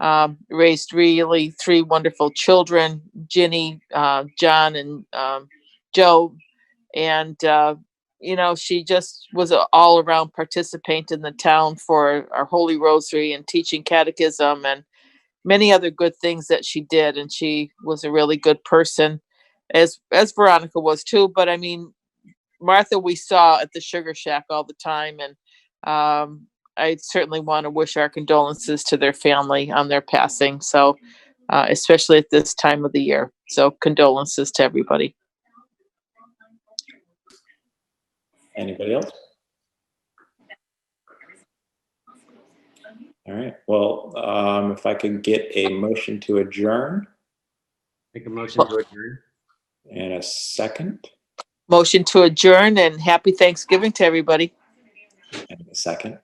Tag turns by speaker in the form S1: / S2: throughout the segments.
S1: um, raised really three wonderful children, Ginny, uh, John, and um, Joe. And, uh, you know, she just was an all around participant in the town for our Holy Rosary and teaching catechism and many other good things that she did. And she was a really good person, as, as Veronica was too. But I mean, Martha, we saw at the Sugar Shack all the time. And um, I certainly want to wish our condolences to their family on their passing. So, uh, especially at this time of the year. So, condolences to everybody.
S2: Anybody else? All right, well, um, if I could get a motion to adjourn
S3: Make a motion to adjourn.
S2: and a second,
S1: Motion to adjourn and happy Thanksgiving to everybody.
S2: and a second.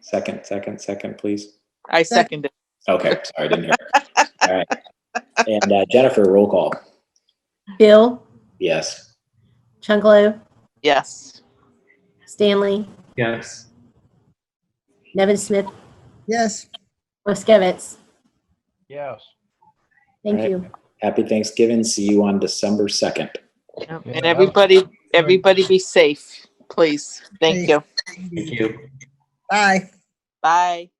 S2: Second, second, second, please.
S1: I second it.
S2: Okay, sorry, I didn't hear. All right. And uh, Jennifer, roll call.
S4: Bill,
S2: Yes.
S4: Chungalo,
S1: Yes.
S4: Stanley,
S3: Yes.
S4: Nevin Smith,
S5: Yes.
S4: Moskowitz.
S6: Yes.
S4: Thank
S2: Right.
S4: you.
S2: Happy Thanksgiving. See you on December 2nd.
S1: And everybody, everybody be safe, please. Thank you.
S3: Thank you.
S5: Bye.
S1: Bye.